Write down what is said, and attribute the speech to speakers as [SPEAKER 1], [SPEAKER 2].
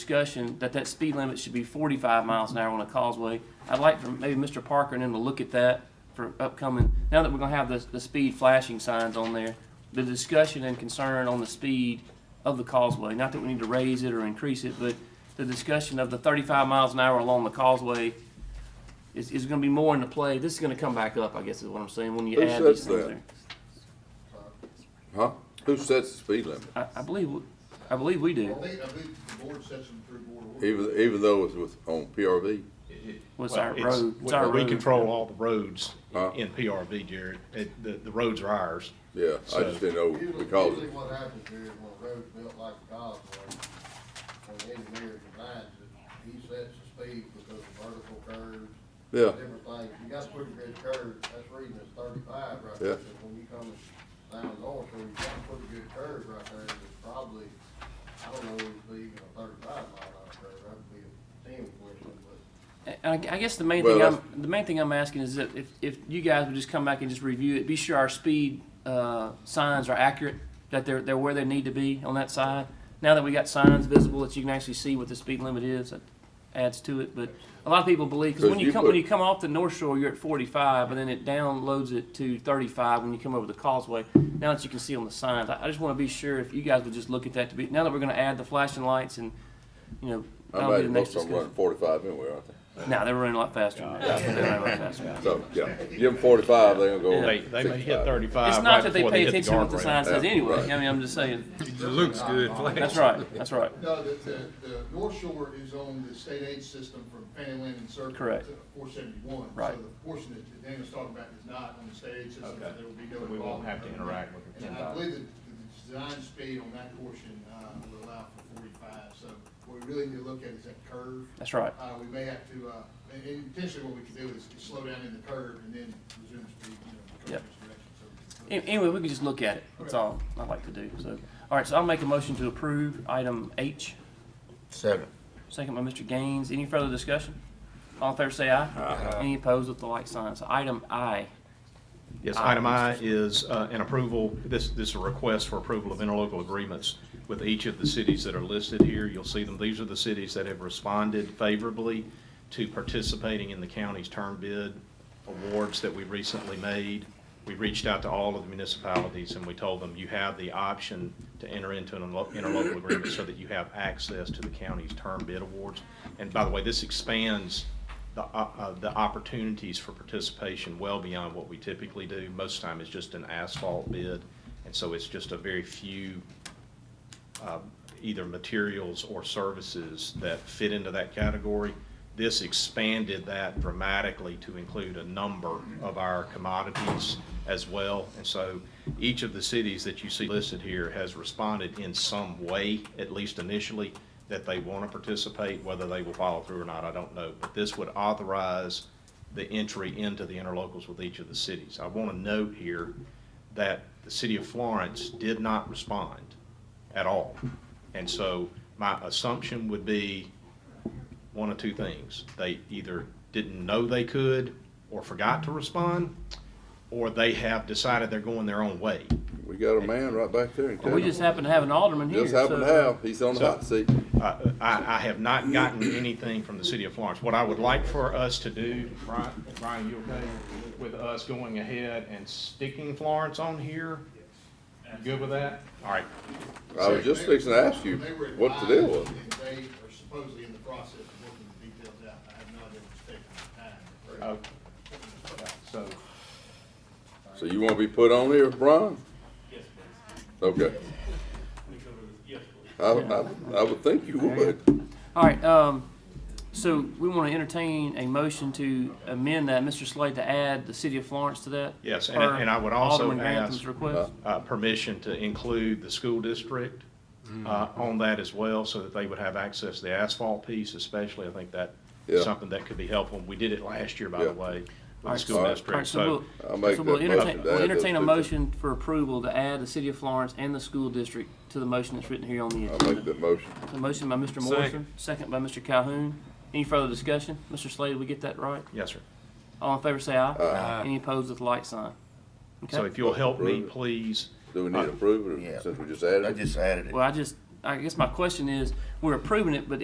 [SPEAKER 1] discussion that that speed limit should be forty-five miles an hour on a causeway. I'd like for maybe Mr. Parker and him to look at that for upcoming, now that we're gonna have the, the speed flashing signs on there, the discussion and concern on the speed of the causeway, not that we need to raise it or increase it, but the discussion of the thirty-five miles an hour along the causeway is, is gonna be more into play. This is gonna come back up, I guess is what I'm saying, when you
[SPEAKER 2] Who
[SPEAKER 1] add these
[SPEAKER 2] says
[SPEAKER 1] things
[SPEAKER 2] that?
[SPEAKER 1] there.
[SPEAKER 2] Huh? Who sets the speed limit?
[SPEAKER 1] I, I believe, we- I believe we do.
[SPEAKER 3] I think, I think the board sets them through board order.
[SPEAKER 2] Even, even though it's with, on PRV?
[SPEAKER 1] What's
[SPEAKER 4] Well,
[SPEAKER 1] our
[SPEAKER 4] it's-
[SPEAKER 1] road? It's
[SPEAKER 4] we-
[SPEAKER 1] our
[SPEAKER 4] We
[SPEAKER 1] road.
[SPEAKER 4] control all the roads
[SPEAKER 2] Huh?
[SPEAKER 4] in PRV, Jared. It- The, the roads are ours.
[SPEAKER 2] Yeah, I just didn't know
[SPEAKER 3] Usually,
[SPEAKER 2] because,
[SPEAKER 3] usually what happens here is when a road's built like a dog road, when the engineer designs it, he sets the speed because of vertical curves,
[SPEAKER 2] yeah,
[SPEAKER 3] different things. You got pretty good curves, that's reading is thirty-five right
[SPEAKER 2] Yeah.
[SPEAKER 3] there. But When you come down North, Shore, you got pretty good curve right there, it's probably, I don't know, it'd be even a thirty-five mile an hour curve, that'd be a team question, but
[SPEAKER 1] And I, I guess the main
[SPEAKER 2] Well,
[SPEAKER 1] thing
[SPEAKER 2] that's-
[SPEAKER 1] I'm, the main thing I'm asking is that if, if you guys would just come back and just review it, be sure our speed, uh, signs are accurate, that they're, they're where they need to be on that side. Now that we got signs visible that you can actually see what the speed limit is, that adds to it, but a lot of people believe, cause
[SPEAKER 2] Cause
[SPEAKER 1] when you
[SPEAKER 2] you
[SPEAKER 1] come, when
[SPEAKER 2] put-
[SPEAKER 1] you come off the North Shore, you're at forty-five, and then it downloads it to thirty-five when you come over the causeway. Now that you can see on the signs, I, I just wanna be sure if you guys would just look at that to be, now that we're gonna add the flashing lights and, you know,
[SPEAKER 2] I
[SPEAKER 1] that'll be the
[SPEAKER 2] imagine
[SPEAKER 1] next
[SPEAKER 2] most of them
[SPEAKER 1] discussion.
[SPEAKER 2] running forty-five anyway, aren't they?
[SPEAKER 1] No, they were running a lot faster. than that. They were running a lot faster.
[SPEAKER 2] So, yeah, give them forty-five, they're gonna go
[SPEAKER 4] They, they may hit
[SPEAKER 2] 65.
[SPEAKER 4] thirty-five
[SPEAKER 1] It's not
[SPEAKER 4] right
[SPEAKER 1] that they
[SPEAKER 4] before
[SPEAKER 1] pay
[SPEAKER 4] they hit the
[SPEAKER 1] attention to what the sign
[SPEAKER 4] guardrail.
[SPEAKER 1] says
[SPEAKER 2] Yeah,
[SPEAKER 1] anyway.
[SPEAKER 2] right.
[SPEAKER 1] I mean, I'm just saying.
[SPEAKER 5] It looks good,
[SPEAKER 1] That's right. That's right.
[SPEAKER 3] No, the, the, the North Shore is on the state aid system from Fanland and Circle.
[SPEAKER 1] Correct.
[SPEAKER 3] Four seventy-one.
[SPEAKER 1] Right.
[SPEAKER 3] So the portion that Daniel's talking about is not on the state aid system, so
[SPEAKER 4] Okay.
[SPEAKER 3] there will be no
[SPEAKER 4] So
[SPEAKER 3] involvement.
[SPEAKER 4] we won't have to interact with the
[SPEAKER 3] And I
[SPEAKER 4] PennDOT.
[SPEAKER 3] believe that the design speed on that portion, uh, will allow for forty-five, so what we really need to look at is that curve.
[SPEAKER 1] That's right.
[SPEAKER 3] Uh, we may have to, uh, and, and potentially what we could do is is slow down in the curve and then resume speed, you know, in the
[SPEAKER 1] Yep.
[SPEAKER 3] curve's direction, so.
[SPEAKER 1] An- Anyway, we can just look at it. That's all I like to do. So, all right. So I'll make a motion to approve item H. Second. Second by Mr. Gaines. Any further discussion? All in favor, say aye. Any opposed with the like sign. So item I.
[SPEAKER 4] Yes,
[SPEAKER 1] Ah.
[SPEAKER 4] item I is uh, an approval, this, this is a request for approval of interlocal agreements with each of the cities that are listed here. You'll see them, these are the cities that have responded favorably to participating in the county's term bid awards that we recently made. We reached out to all of the municipalities and we told them, you have the option to enter into an interlo- interlocal agreement so that you have access to the county's term bid awards. And by the way, this expands the, uh, uh, the opportunities for participation well beyond what we typically do. Most of the time, it's just an asphalt bid, and so it's just a very few um, either materials or services that fit into that category. This expanded that dramatically to include a number of our commodities as well. And so each of the cities that you see listed here has responded in some way, at least initially, that they want to participate. Whether they will follow through or not, I don't know. But this would authorize the entry into the interlocals with each of the cities. I want to note here that the city of Florence did not respond at all. And so my assumption would be one of two things. They either didn't know they could or forgot to respond, or they have decided they're going their own way.
[SPEAKER 2] We got a man right back there in
[SPEAKER 1] Well, we
[SPEAKER 2] town.
[SPEAKER 1] just happen to have an alderman here.
[SPEAKER 2] Just
[SPEAKER 1] so-
[SPEAKER 2] happen to have, he's on the
[SPEAKER 4] So-
[SPEAKER 2] hot seat.
[SPEAKER 4] Uh, I, I have not gotten anything from the city of Florence. What I would like for us to do, Brian, Brian, you okay with us going ahead and sticking Florence on here? You Good with that? All right,
[SPEAKER 2] I was just fixing to ask you
[SPEAKER 3] They were
[SPEAKER 2] what the deal was.
[SPEAKER 3] advised that They are supposedly in the process of working the details out. I have not been taking the time.
[SPEAKER 4] Oh, so,
[SPEAKER 2] So you wanna be put on here, Brian? Yes, please. Okay. I, I, I would think you would.
[SPEAKER 1] All right, um, so we want to entertain a motion to amend that, Mr. Slade, to add the city of Florence to that?
[SPEAKER 4] Yes, and-
[SPEAKER 1] per
[SPEAKER 4] and I would also
[SPEAKER 1] Alderman Grantham's
[SPEAKER 4] ask,
[SPEAKER 1] request?
[SPEAKER 4] uh, permission to include the school district,
[SPEAKER 1] Mm-hmm.
[SPEAKER 4] uh, on that as well, so that they would have access to the asphalt piece especially. I think that
[SPEAKER 2] Yeah.
[SPEAKER 4] is something that could be helpful. We did it last year, by the
[SPEAKER 2] Yeah.
[SPEAKER 4] way,
[SPEAKER 1] All
[SPEAKER 4] with the
[SPEAKER 1] right,
[SPEAKER 4] school
[SPEAKER 1] so- all
[SPEAKER 4] district,
[SPEAKER 1] right,
[SPEAKER 4] so.
[SPEAKER 1] we'll-
[SPEAKER 2] I'll make
[SPEAKER 1] so we'll
[SPEAKER 2] that
[SPEAKER 1] entertain-
[SPEAKER 2] motion to
[SPEAKER 1] We'll
[SPEAKER 2] add those
[SPEAKER 1] entertain a
[SPEAKER 2] two
[SPEAKER 1] motion for approval to add the city of Florence and the school district to the motion that's written here on the
[SPEAKER 2] I'll make
[SPEAKER 1] agenda.
[SPEAKER 2] that motion.
[SPEAKER 1] The motion by Mr. Morrison, second by Mr. Calhoun. Any further discussion? Mr. Slade, we get that right?
[SPEAKER 4] Yes, sir.
[SPEAKER 1] All in favor, say aye.
[SPEAKER 5] Aye.
[SPEAKER 1] Any opposed with the light sign?
[SPEAKER 4] So
[SPEAKER 1] Okay,
[SPEAKER 4] if you'll help me,
[SPEAKER 2] Approve it.
[SPEAKER 4] please,
[SPEAKER 2] Do we need to approve it, or- since we just added
[SPEAKER 5] I
[SPEAKER 2] it?
[SPEAKER 5] just added it.
[SPEAKER 1] well, I just, I guess my question is, we're approving it, but